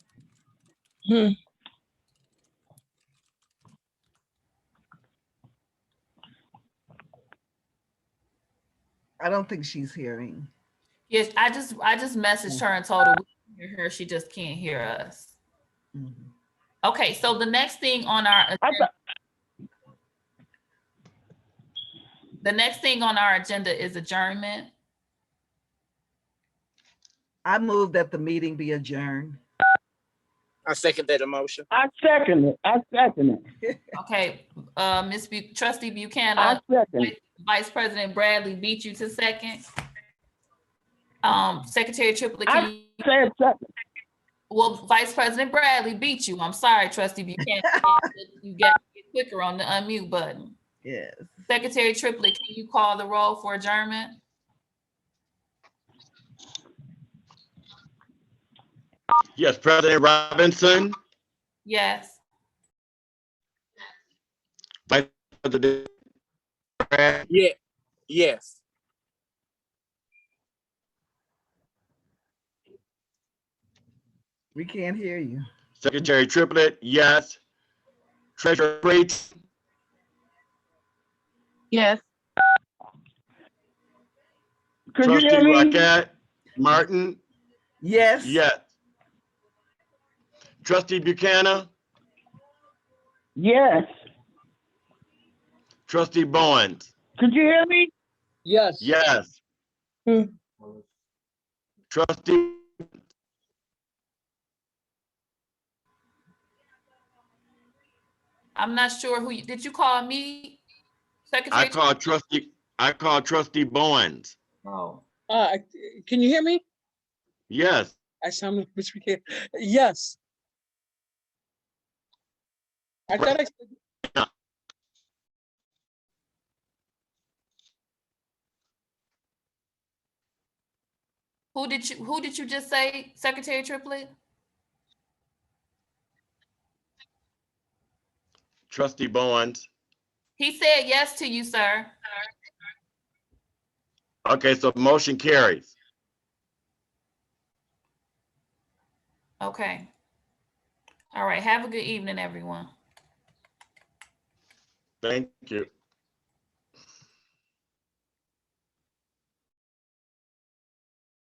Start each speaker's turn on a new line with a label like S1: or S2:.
S1: Hmm.
S2: I don't think she's hearing.
S3: Yes, I just, I just messaged her and told her we can hear her, she just can't hear us.
S2: Mhm.
S3: Okay, so the next thing on our,
S1: I
S3: agenda- the next thing on our agenda is adjournment.
S2: I move that the meeting be adjourned.
S4: I second that emotion.
S5: I second it. I second it.
S3: Okay, uh, Ms. Bu- Trustee
S5: I
S6: Uh,
S3: Buchanan,
S5: second it.
S3: Vice President Bradley beat you to second. Um, Secretary Triplett,
S5: I-
S3: can you?
S5: Say it second.
S3: Well, Vice President Bradley beat you. I'm sorry, Trustee Buchanan. You got to get quicker on the unmute button.
S2: Yes.
S3: Secretary Triplett, can you call the roll for adjournment?
S7: Yes, President Robinson,
S3: Yes.
S7: Vice President Brad,
S4: Yeah, yes.
S2: We can't hear you.
S7: Secretary Triplett, yes. Treasurer Prince,
S1: Yes.
S5: Could you
S7: Trustee
S5: hear me?
S7: Rocket, Martin,
S2: Yes.
S7: yes. Trustee Buchanan,
S5: Yes.
S7: Trustee Bowens,
S5: Could you hear me?
S6: Yes.
S7: yes.
S1: Hmm.
S7: Trustee,
S3: I'm not sure who, you- did you call me?
S7: I
S3: Secretary?
S7: call trustee, I call trustee Bowens,
S3: Oh.
S6: Uh, I- can you hear me?
S7: yes.
S6: I sound like Mr. Buchanan. Yes. I thought I, said-
S3: Who did you, who did you just say, Secretary Triplett?
S7: Trustee Bowens.
S3: He said yes to you, sir.
S7: Okay, so motion carries.
S3: Okay. All right, have a good evening, everyone.
S7: Thank you.